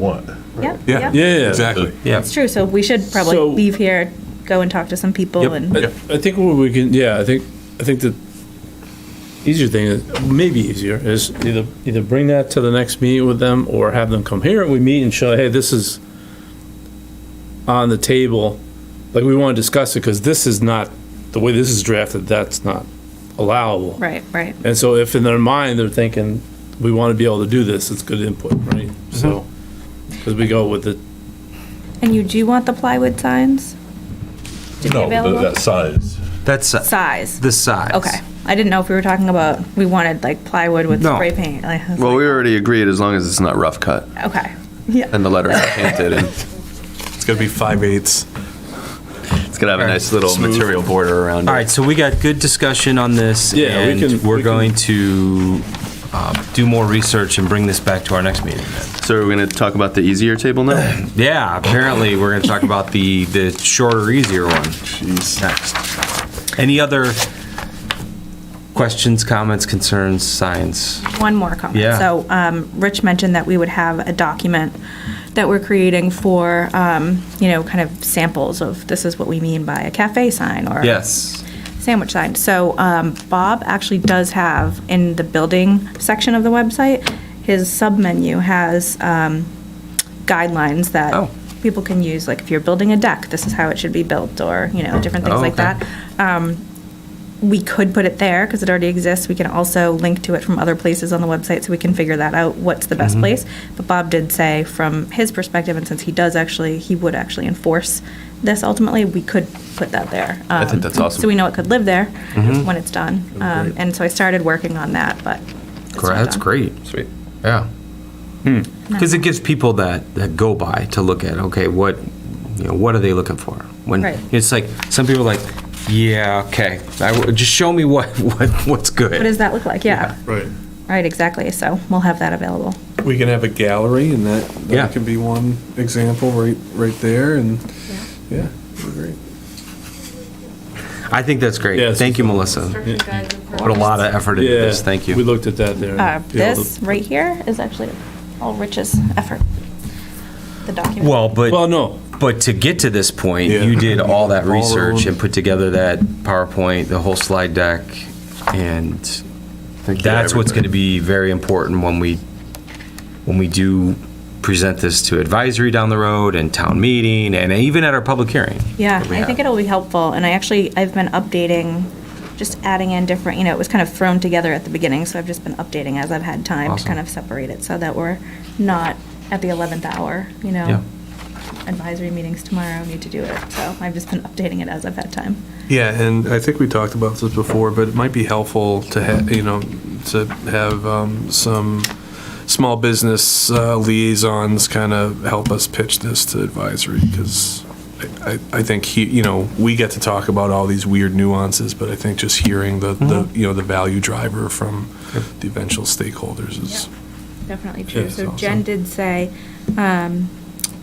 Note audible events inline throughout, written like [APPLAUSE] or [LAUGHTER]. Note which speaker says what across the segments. Speaker 1: want.
Speaker 2: Yeah.
Speaker 3: Yeah,
Speaker 2: yeah.
Speaker 3: yeah,
Speaker 4: Exactly.
Speaker 3: Yeah.
Speaker 2: It's true. So we should probably
Speaker 3: So-
Speaker 2: leave here, go and talk to some people
Speaker 3: Yep. Uh,
Speaker 2: and.
Speaker 3: I, I think what we can, yeah, I think, I think the easier thing, is maybe easier, is either, either bring that to the next meeting with them or have them come here and we meet and show, hey, this is on the table, like we want to discuss it because this is not, the way this is drafted, that's not allowable.
Speaker 2: Right, right.
Speaker 3: And so if in their mind, they're thinking, we want to be able to do this, it's good input, right?
Speaker 4: Mm-hmm.
Speaker 3: So, because we go with the,
Speaker 2: And you do want the plywood signs? To be
Speaker 1: No,
Speaker 2: available?
Speaker 1: that size.
Speaker 4: That's uh,
Speaker 2: Size.
Speaker 4: the size.
Speaker 2: Okay. I didn't know if we were talking about, we wanted like plywood with
Speaker 4: No.
Speaker 2: spray paint. like, I was
Speaker 5: Well, we already agreed as long as it's not rough cut
Speaker 2: like, Okay. Yeah.
Speaker 5: and the letters are painted and
Speaker 4: It's gonna be five eighths.
Speaker 5: it's gonna have a nice little material border around
Speaker 4: All
Speaker 5: it.
Speaker 4: right, so we got good discussion on this.
Speaker 3: Yeah, we
Speaker 4: and
Speaker 3: can-
Speaker 4: We're
Speaker 3: we can-
Speaker 4: going to um, do more research and bring this back to our next meeting. then.
Speaker 5: So are we gonna talk about the easier table now?
Speaker 4: Yeah, apparently we're gonna talk about the the shorter, easier one. Jeez. Next. Any other questions, comments, concerns, signs?
Speaker 2: One more comment.
Speaker 4: Yeah.
Speaker 2: So, um, Rich mentioned that we would have a document that we're creating for, um, you know, kind of samples of this is what we mean by a cafe sign or.
Speaker 4: Yes.
Speaker 2: sandwich sign. So um, Bob actually does have in the building section of the website, his submenu has um, guidelines that
Speaker 4: Oh.
Speaker 2: people can use. Like if you're building a deck, this is how it should be built, or you know different things
Speaker 4: Oh,
Speaker 2: like
Speaker 4: okay.
Speaker 2: that. Um, we could put it there because it already exists. We can also link to it from other places on the website, so we can figure that out. What's the
Speaker 4: Mm-hmm.
Speaker 2: best place? But Bob did say, from his perspective, and since he does actually, he would actually enforce this ultimately. We could put that there.
Speaker 5: I think
Speaker 2: Um,
Speaker 5: that's awesome.
Speaker 2: So we know it could live there when it's done. Um, and so I started working on that, but it's not
Speaker 4: That's
Speaker 2: done.
Speaker 4: great.
Speaker 5: Sweet.
Speaker 4: Yeah. Because Hmm. it gives people that, that go by to look at, okay, what, you know, what are they looking for? When,
Speaker 2: Right.
Speaker 4: it's like, some people are like, yeah, okay, I w- just show me what, [LAUGHS] what, what's
Speaker 2: What does
Speaker 4: good.
Speaker 2: that look like? Yeah.
Speaker 6: Right.
Speaker 2: Right, exactly. So we'll have that available.
Speaker 6: We can have a gallery and that,
Speaker 4: Yeah.
Speaker 6: that could be one example right, right there and, yeah, great.
Speaker 4: I think that's
Speaker 3: Yeah,
Speaker 4: great.
Speaker 3: it's
Speaker 4: Thank you, Melissa. Put a lot of effort into
Speaker 3: yeah,
Speaker 4: this, thank you.
Speaker 3: we looked at that there.
Speaker 2: Uh,
Speaker 3: Yeah, the-
Speaker 2: this right here is actually all Rich's effort. The document.
Speaker 4: Well,
Speaker 3: Well,
Speaker 4: but,
Speaker 3: no,
Speaker 4: but to get to this point,
Speaker 6: Yeah.
Speaker 4: you did all that
Speaker 6: All
Speaker 4: research
Speaker 6: around.
Speaker 4: and put together that PowerPoint, the whole slide deck, and
Speaker 5: Thank you,
Speaker 4: That's what's going to be
Speaker 5: everybody.
Speaker 4: very important when we, when we do present this to advisory down the road and town meeting and even at our public hearing.
Speaker 2: Yeah,
Speaker 4: that we
Speaker 2: I think
Speaker 4: have.
Speaker 2: it'll be helpful, and I actually, I've been updating, just adding in different, you know, it was kind of thrown together at the beginning, so I've just been updating as I've had time to
Speaker 4: Awesome.
Speaker 2: kind of separate it, so that we're not at the 11th hour, you
Speaker 4: Yeah.
Speaker 2: know? Advisory meetings tomorrow, need to do it, so I've just been updating it as I've had time.
Speaker 6: Yeah, and I think we talked about this before, but it might be helpful to have, you know, to have um, some small business uh, liaisons kind of help us pitch this to advisory, because I, I think he, you know, we get to talk about all these weird nuances, but I think just hearing the, the, you know, the value driver from the eventual stakeholders is,
Speaker 2: Definitely
Speaker 6: true. Yeah,
Speaker 2: true.
Speaker 6: it's
Speaker 2: So Jen
Speaker 6: awesome.
Speaker 2: did say, um,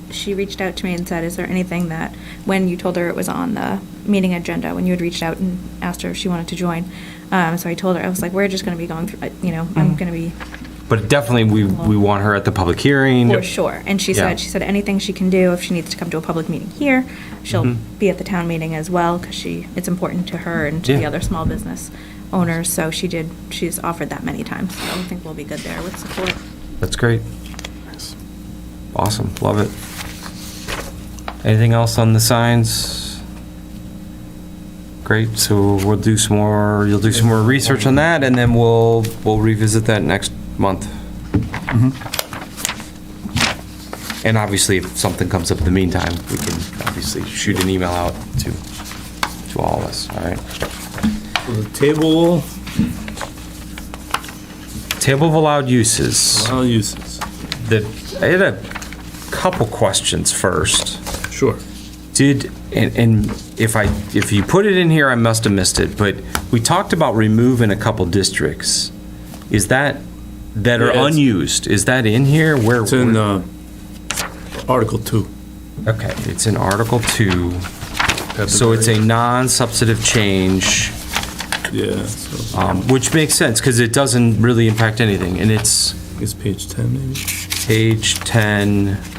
Speaker 2: she reached out to me and said, is there anything that, when you told her it was on the meeting agenda, when you had reached out and asked her if she wanted to join, um, so I told her, I was like, we're just gonna be going through, uh, you know, I'm gonna be
Speaker 4: But definitely, we, we want her at the public hearing.
Speaker 2: for sure. And she
Speaker 4: Yeah.
Speaker 2: said, she said anything she can do, if she needs to come to a public meeting here, she'll be at the town meeting as well, because she, it's important to her and to the
Speaker 4: Yeah.
Speaker 2: other small business owners, so she did, she's offered that many times, so I think we'll be good there with support.
Speaker 4: That's great. Awesome, love it. Anything else on the signs? Great, so we'll do some more, you'll do some more research on that and then we'll, we'll revisit that next month. And obviously, if something comes up in the meantime, we can obviously shoot an email out to, to all of us, all right?
Speaker 3: so the table,
Speaker 4: Table of allowed uses.
Speaker 3: I'll use this.
Speaker 4: The, I had a couple questions first.
Speaker 3: Sure.
Speaker 4: Did, and, and if I, if you put it in here, I must have missed it, but we talked about removing a couple districts. Is that, that are
Speaker 3: Yeah, it's-
Speaker 4: unused, is that in here? Where?
Speaker 3: It's in uh, Article 2.
Speaker 4: Okay, it's in Article Two, so it's a non-substantive change,
Speaker 3: Yeah, so
Speaker 4: um, which makes sense, because it doesn't really impact anything, and it's,
Speaker 3: it's page 10 maybe.
Speaker 4: Page 10.